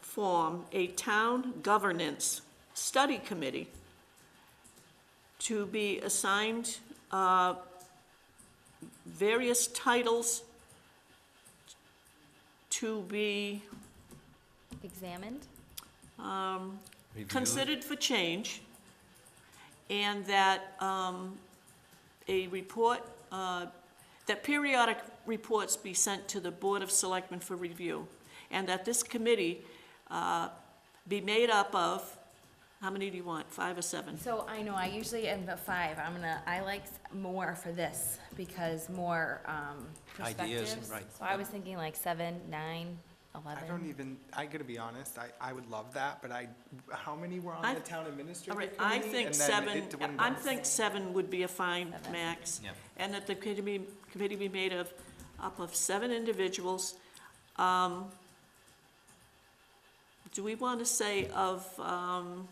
form a town governance study committee to be assigned uh, various titles to be Examined? considered for change, and that um, a report, uh, that periodic reports be sent to the Board of Selectmen for review, and that this committee uh, be made up of, how many do you want, five or seven? So I know, I usually am the five, I'm gonna, I like more for this, because more, um, Ideas, perspectives. right. So I was thinking like seven, nine, eleven. I don't e-, even, I gotta be honest, I, I would love that, but I, how many were I- on the town All administrative right, committee? I think And then seven, it dwindled. I think seven would be a fine Seven. max. Yeah. And that the committee be, committee be made of, up of seven individuals. Um, Do we want to say of, um,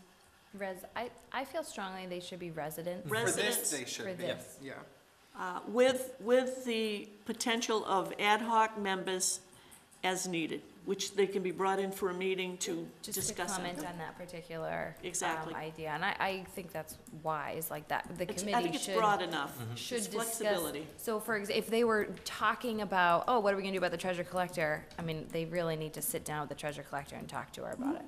Res, I, I feel strongly they should be residents. Res- For this, Residents they for should be, this. yeah. uh, with, with the potential of ad hoc members as needed, which they can be brought in for a meeting to Just to discuss it. comment on that particular. um, Exactly. Idea, and I, I think that's wise, like that, the It's- committee should. I think it's broad enough. should It's discuss. Flexibility. So for, ex- if they were talking about, oh, what are we gonna do about the treasure collector? I mean, they really need to sit down with the treasure collector and talk to her about it.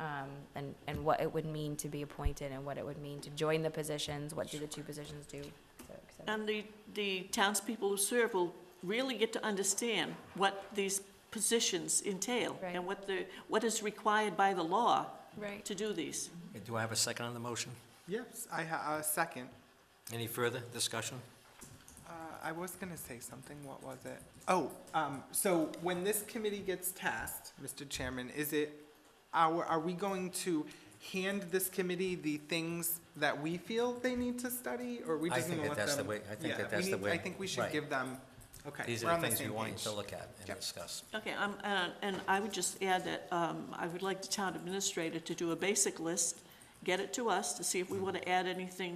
Um, and, and what it would mean to be appointed and what it would mean to join the positions, what do the two positions do? so, et cetera. And the, the townspeople who serve will really get to understand what these positions entail Right. and what the, what is required by the law Right. to do these. Do I have a second on the motion? Yes, I ha, uh, second, Any further discussion? uh, I was gonna say something, what was it? Oh, um, so when this committee gets tasked, Mr. Chairman, is it, our, are we going to hand this committee the things that we feel they need to study, or we I just think that gonna let that's them? the way- I think Yeah, that we that's the need- way- I think we should right. give them, okay, These we're are on the the things we same want you page. to look at and Yep. discuss. Okay, um, uh, and I would just add that, um, I would like the town administrator to do a basic list, get it to us to see if we want to add anything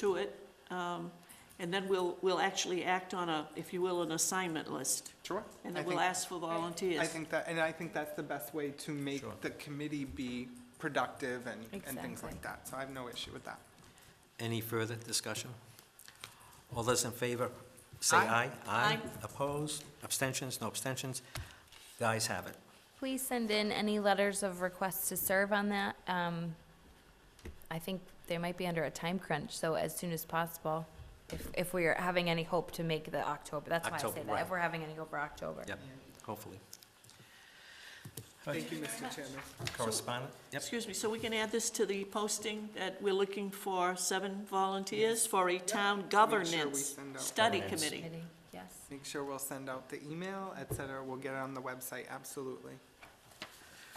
to it. Um, and then we'll, we'll actually act on a, if you will, an assignment list. Sure. And I then we'll think- ask for volunteers. I think that, and I think that's the best way to make Sure. the committee be productive and, and things Exactly. like that. So I have no issue with that. Any further discussion? All those in favor, say Aye. aye. Aye. Aye. Opposed? Abstentions? No abstentions? The ayes have it. Please send in any letters of requests to serve on that. Um, I think they might be under a time crunch, so as soon as possible, if, if we are having any hope to make the October, that's why I October, say that, right. if we're having any hope for October. Yep, hopefully. Thank you, Mr. Chairman. Correspondent? Yep. Excuse me, so we can add this to the posting that we're looking for seven volunteers for a town governance send out- study Governance. committee? Committee, Yes. Make sure we'll send out the email, et cetera. We'll get it on the website, absolutely.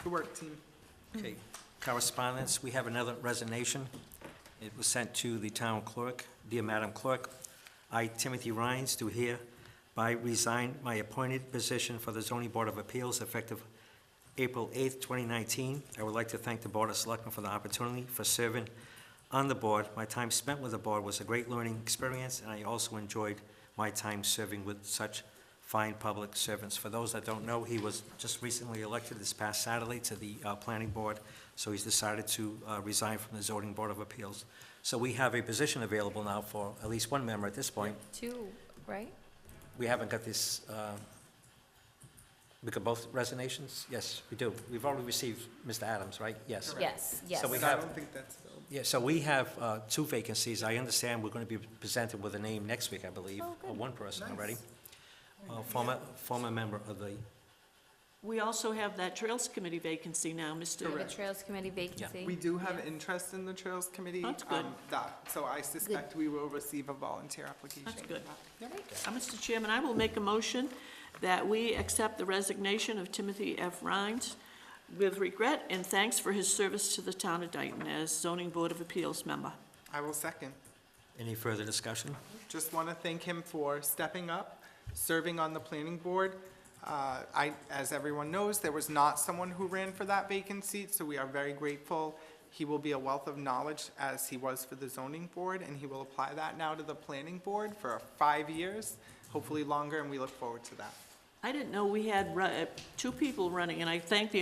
Good work, team. Okay. Correspondence, we have another resignation. It was sent to the town clerk. Dear Madam Clerk, I, Timothy Rhines, do hereby resign my appointed position for the zoning board of appeals effective April 8th, 2019. I would like to thank the Board of Selectmen for the opportunity for serving on the board. My time spent with the board was a great learning experience, and I also enjoyed my time serving with such fine public servants. For those that don't know, he was just recently elected this past Saturday to the uh, Planning Board, so he's decided to uh, resign from the Zoning Board of Appeals. So we have a position available now for at least one member at this point. Two, right? We haven't got this, uh, we got both resignations? Yes, we do. We've already received Mr. Adams, right? Yes. Yes, yes. So we So I have- don't think that's filled. Yeah, so we have uh, two vacancies. I understand we're going to be presented with a name next week, I believe, Oh, good. or one person already. Nice. Uh, Former, former member of the, We also have that Trails Committee vacancy now, uh, We have Mr. a Trails Committee vacancy. We do have Yeah. interest in the Trails Committee. That's good. um, That, so I suspect we will receive a volunteer application. That's for good. that. Yep. Uh, Mr. Chairman, I will make a motion that we accept the resignation of Timothy F. Rhines with regret and thanks for his service to the town of Dayton as zoning board of appeals member. I will second. any further discussion? Just want to thank him for stepping up, serving on the planning board. Uh, I, as everyone knows, there was not someone who ran for that vacant seat, so we are very grateful. He will be a wealth of knowledge as he was for the zoning board, and he will apply that now to the planning board for five years, hopefully longer, and we look forward to that. I didn't know we had ru- uh, two people running, and I thank the